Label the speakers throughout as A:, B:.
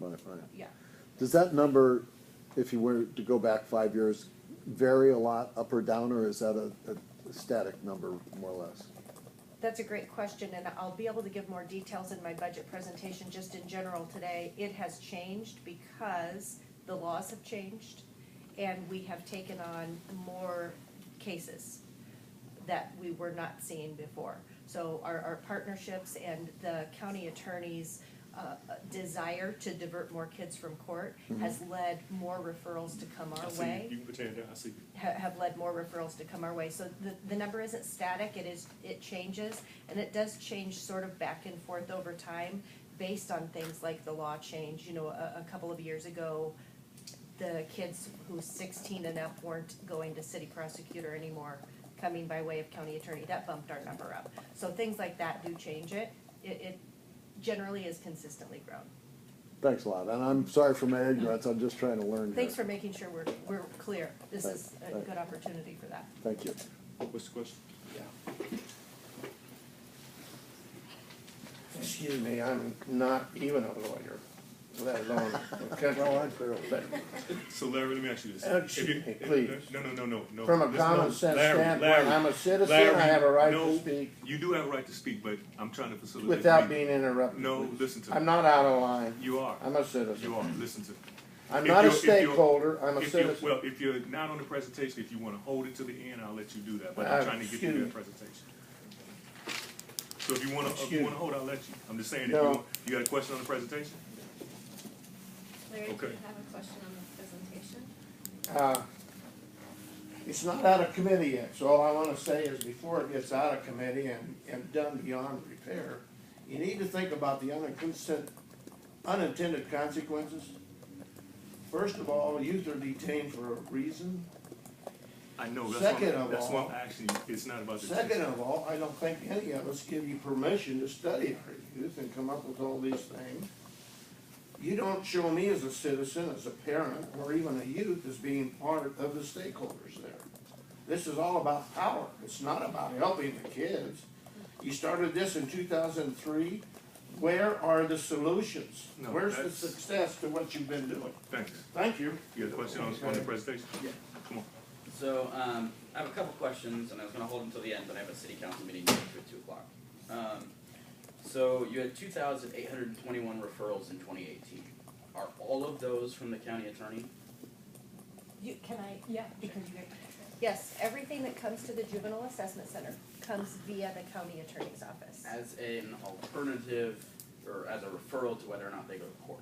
A: my plan.
B: yeah.
A: Does that number, if you were to go back five years, vary a lot up or down, or is that a, a static number, more or less?
B: That's a great question, and I'll be able to give more details in my budget presentation, just in general today. It has changed because the laws have changed, and we have taken on more cases that we were not seeing before. So our, our partnerships and the county attorney's uh, desire to divert more kids from court has led more referrals to come
C: Mm-hmm. I
B: our
C: see,
B: way
C: you can put your hand down, I see.
B: ha- have led more referrals to come our way. So the, the number isn't static, it is, it changes, and it does change sort of back and forth over time based on things like the law change, you know, a, a couple of years ago, the kids who sixteen and up weren't going to city prosecutor anymore, coming by way of county attorney, that bumped our number up. So things like that do change it, it, it generally is consistently grown.
A: Thanks a lot, and I'm sorry for my ignorance, I'm just trying to learn here.
B: Thanks for making sure we're, we're clear, this is a
A: Right, right.
B: good opportunity for that.
A: Thank you.
C: Oh, What's the question?
D: Excuse me, I'm not even a lawyer, let alone a country. But
C: So Larry, let me ask you this.
D: Oh,
C: If you-
D: shoot me,
C: if-
D: please.
C: No, no, no, no, no.
D: From a
C: Listen,
D: common
C: no,
D: sense
C: Larry,
D: standpoint,
C: Larry,
D: I'm a citizen, I
C: Larry,
D: have a right to
C: no,
D: speak.
C: You do have a right to speak, but I'm trying to facilitate.
D: without
C: you.
D: being interrupted.
C: No,
D: please.
C: listen to me.
D: I'm not out of line.
C: You are.
D: I'm a citizen.
C: You are, listen to me.
D: I'm
C: If
D: not a
C: you're- if you're-
D: stakeholder, I'm a
C: If you,
D: citizen.
C: well, if you're not on the presentation, if you wanna hold it to the end, I'll let you do that, but
D: Uh,
C: I'm trying to get
D: excuse
C: you
D: me.
C: that presentation. So if you wanna, if
D: Excuse
C: you
D: me.
C: wanna hold, I'll let you. I'm just saying, if
D: No.
C: you, you got a question on the presentation?
E: Larry, do
C: Okay.
E: you have a question on the presentation?
D: Uh, It's not out of committee yet, so all I wanna say is before it gets out of committee and, and done beyond repair, you need to think about the unintended, unintended consequences. First of all, youth are detained for a reason.
C: I know, that's
D: Second
C: why,
D: of
C: that's why
D: all-
C: I'm asking you, it's not about the.
D: Second of all, I don't think any of us give you permission to study our youth and come up with all these things. You don't show me as a citizen, as a parent, or even a youth as being part of the stakeholders there. This is all about power, it's not about helping the kids. You started this in two thousand and three, where are the solutions?
C: No,
D: Where's the
C: that's-
D: success to what you've been doing?
C: Thanks.
D: Thank you.
C: You got a question on, on the presentation?
F: Yeah.
C: Come on.
F: So, um, I have a couple questions, and I was gonna hold them till the end, but I have a city council meeting next week at two o'clock. Um, so you had two thousand eight hundred and twenty-one referrals in twenty eighteen. Are all of those from the county attorney?
B: You, can I? Yeah. Because you. Yes, everything that comes to the juvenile assessment center comes via the county attorney's office.
F: As an alternative, or as a referral to whether or not they go to court?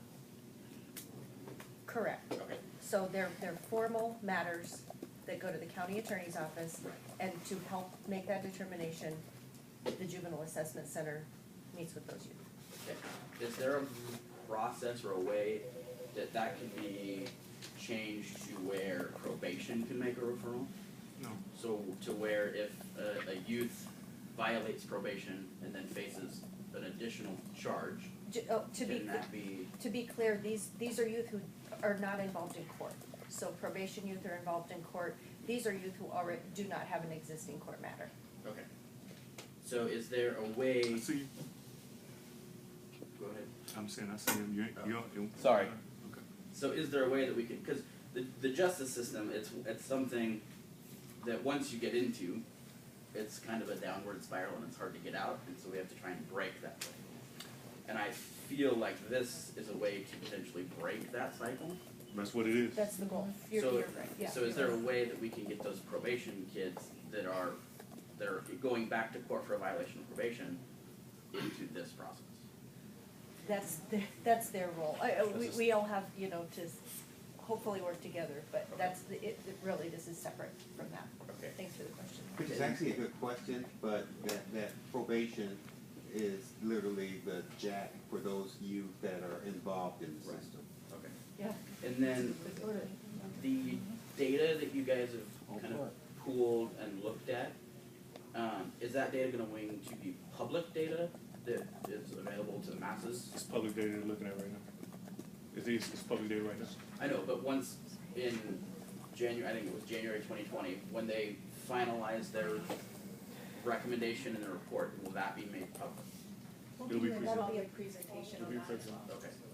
B: Correct.
F: Okay.
B: So they're, they're formal matters that go to the county attorney's office.
F: Right.
B: And to help make that determination, the juvenile assessment center meets with those youth.
F: Okay. Is there a process or a way that that can be changed to where probation can make a referral?
C: No.
F: So to where if a, a youth violates probation and then faces an additional charge,
B: Ju- oh, to be,
F: can that be?
B: to be clear, these, these are youth who are not involved in court. So probation youth are involved in court. These are youth who already do not have an existing court matter.
F: Okay. So is there a way?
C: I see, you.
F: Go ahead.
C: I'm saying, I see him, you, ain't- you. don't-
F: Sorry.
C: Okay.
F: So is there a way that we can? Because the the justice system, it's it's something that once you get into, it's kind of a downward spiral and it's hard to get out, and so we have to try and break that cycle. And I feel like this is a way to potentially break that cycle.
C: That's what it is.
B: That's the goal. You're,
F: So-
B: you're right, yeah.
F: So is there a way that we can get those probation kids that are, that are going back to court for a violation of probation into this process?
B: That's, their- that's their role. I- I- We,
F: This is-
B: we all have, you know, to s- hopefully work together, but that's, the it, it really, this is separate from that.
F: Okay.
B: Thanks for the question.
G: Which is actually a good question, but that, that probation is literally the jack for those youth that are involved in the
F: Right.
G: system.
F: Okay.
B: Yeah.
F: And then the data that you guys have kind of pooled and looked at, um, is that data gonna wing to be public data that is available to the masses?
C: It's public data they're looking at right now. It is, it's public data right now.
F: I know, but once in January, I think it was January twenty twenty, when they finalized their recommendation in the report, will that be made public?
C: It'll be presented.
E: Probably a presentation
C: It'll
E: on
C: be
E: that as
C: presented.
E: well.
F: Okay,